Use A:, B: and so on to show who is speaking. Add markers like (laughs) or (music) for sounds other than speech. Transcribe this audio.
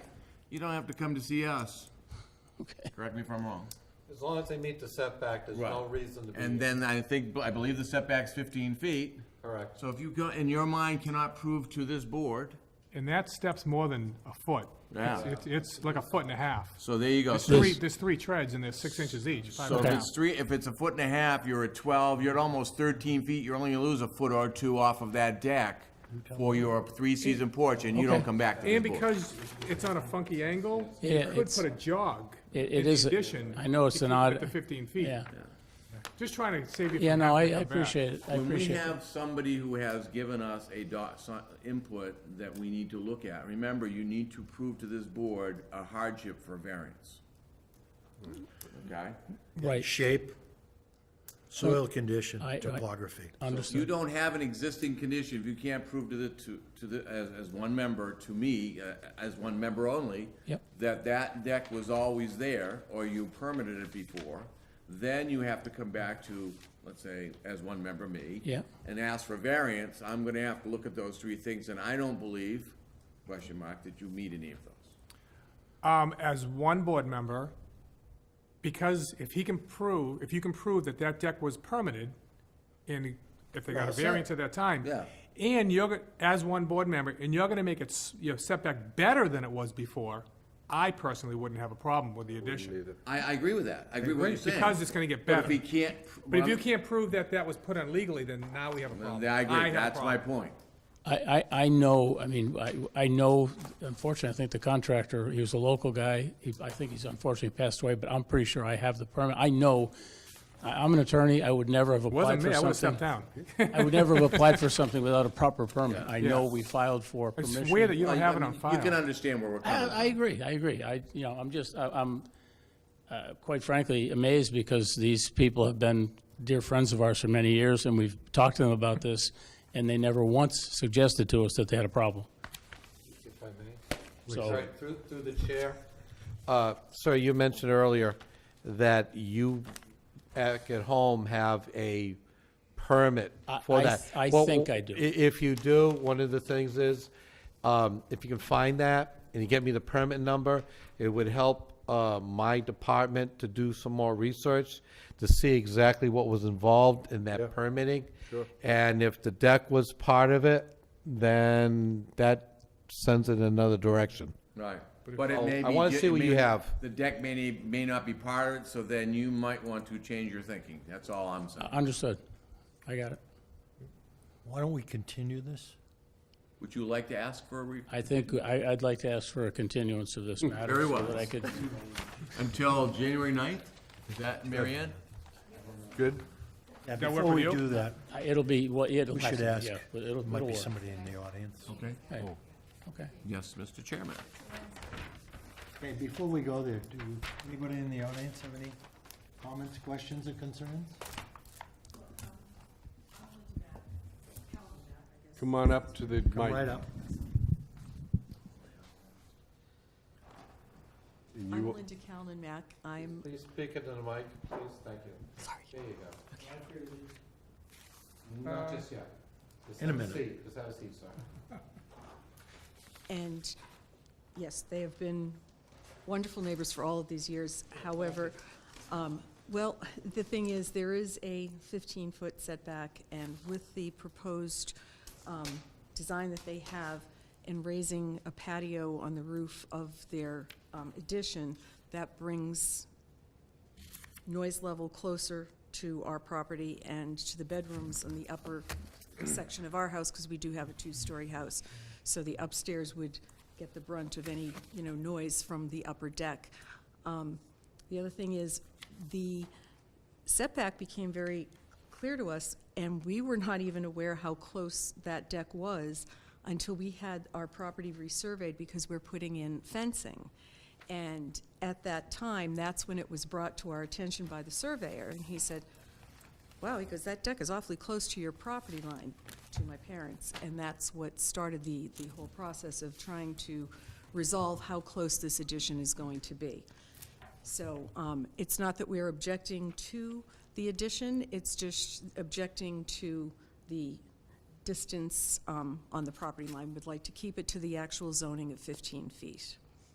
A: You don't have to come to see us.
B: Okay.
A: Correct me if I'm wrong.
C: As long as they meet the setback, there's no
A: Right.
C: reason to be.
A: And then I think, I believe the setback's fifteen feet.
C: Correct.
A: So if you go, in your mind cannot prove to this board,
D: And that step's more than a foot.
A: Yeah.
D: It's- It's, it's like a foot and a half.
A: so there you go.
D: There's
A: So
D: three, there's three treads and they're six inches each, five
A: so
D: and a
A: if
D: half.
A: it's three, if it's a foot and a half, you're at twelve, you're at almost thirteen feet, you're only gonna lose a foot or two off of that deck for your three-season porch, and you don't
B: Okay.
A: come back to this
D: And
A: board.
D: because it's on a funky angle,
B: Yeah,
D: you could
B: it's-
D: put a jog.
B: It- it
D: in the
B: is a-
D: addition
B: I know
D: to
B: it's an
D: keep it
B: odd-
D: at the fifteen feet.
B: Yeah,
D: Just trying to save you
B: yeah,
D: from
B: no, I I
D: having to come back.
B: appreciate it, I
A: When we
B: appreciate it.
A: have somebody who has given us a dot, so- input that we need to look at, remember, you need to prove to this board a hardship for variance. Okay?
B: Right,
E: Shape, soil condition,
B: I- I-
E: topography.
A: If you
B: understood,
A: don't have an existing condition, if you can't prove to the, to, to the, as, as one member, to me, uh, as one member only,
B: Yep.
A: that that deck was always there, or you permitted it before, then you have to come back to, let's say, as one member, me.
B: Yeah.
A: And ask for variance, I'm gonna have to look at those three things, and I don't believe, question mark, that you meet any of those.
D: Um, as one board member, because if he can prove, if you can prove that that deck was permitted, and if they got a
A: Well, so-
D: variance at that time.
A: Yeah.
D: And you're, go- as one board member, and you're gonna make it, s- your setback better than it was before, I personally wouldn't have a problem with the addition.
A: I, I agree with that, I agree with what you're saying.
D: Because it's gonna get
A: But if
D: better.
A: he can't.
D: But if you can't prove that that was put on legally, then now we have a problem.
A: Then I
D: have
A: agree,
D: a
A: that's my
D: problem.
A: point.
B: I, I, I know, I mean, I, I know, unfortunately, I think the contractor, he was a local guy, he, I think he's unfortunately passed away, but I'm pretty sure I have the permit, I know, I, I'm an attorney, I would never have applied
D: Wasn't
B: for
D: me, I would've stepped
B: something.
D: down. (laughs)
B: I would never have applied for something without a proper permit, I know
D: Yeah.
B: we filed for
D: I
B: permission.
D: swear that you don't
A: Well,
D: have
A: I
D: it on
A: mean, You can
D: file.
A: understand where we're coming
B: I,
A: from.
B: I agree, I agree. I, you know, I'm just, I- I'm uh, quite frankly amazed because these people have been dear friends of ours for many years, and we've talked to them about this, and they never once suggested to us that they had a problem.
C: if I may.
B: So-
C: Sorry, Through, through the chair. Uh, Sir, you mentioned earlier that you back at home have a permit
B: I-
C: for
B: I
C: that.
B: th- I
C: Well,
B: think I do.
C: i- If you do, one of the things is, um, if you can find that and you get me the permit number, it would help uh, my department to do some more research to see exactly what was involved in that permitting. And if the deck was part of it, then that sends it in another direction.
A: Right, but it
C: I'll-
A: may be.
C: I wanna
A: ju-
C: see
A: it
C: what
A: may-
C: you have.
A: The deck may, ne- may not be part of it, so then you might want to change your thinking, that's all I'm saying.
B: Uh, Understood. I got it.
E: Why don't we continue this?
A: Would you like to ask for a re?
B: I think, I, I'd like to ask for a continuance of this matter.
A: Hmm, Very
B: so
A: well.
B: that I could,
A: Until January ninth, is that, Mary Ann?
C: Good.
E: Yeah,
D: That work
E: before
D: with
E: we
D: you?
E: do that,
B: I- it'll be, well, it'll
E: we
B: have
E: should
B: to
E: ask,
B: be, yeah, but it'll,
E: might
B: it'll
E: be
B: work.
E: somebody in the audience.
A: Okay.
B: Right. Okay.
A: Yes, Mr. Chairman.
F: Okay, before we go there, do anybody in the audience have any comments, questions, or concerns?
G: Come on up to the
F: Come
G: mic.
F: right up.
G: and
H: I'm
G: you-
H: Linda Callen Mack. I'm,
C: Please speak into the mic, please, thank you.
H: sorry.
C: There you go. Not just yet. Just
E: In a
C: have
E: minute.
C: seat. Just have a seat, sir.
H: And yes, they have been wonderful neighbors for all of these years. However, um, well, (laughs) the thing is, there is a 15-foot setback, and with the proposed um, design that they have and raising a patio on the roof of their um, addition, that brings noise level closer to our property and to the bedrooms in the upper section of our house, because we do have a two-story house. So the upstairs would get the brunt of any, you know, noise from the upper deck. Um, The other thing is, the setback became very clear to us, and we were not even aware how close that deck was until we had our property resurveyed because we're putting in fencing. And at that time, that's when it was brought to our attention by the surveyor, and he said, wow, he goes, that deck is awfully close to your property line, to my parents. And that's what started the, the whole process of trying to resolve how close this addition is going to be. So um, it's not that we're objecting to the addition, it's just objecting to the distance um, on the property line. Would like to keep it to the actual zoning of 15 feet.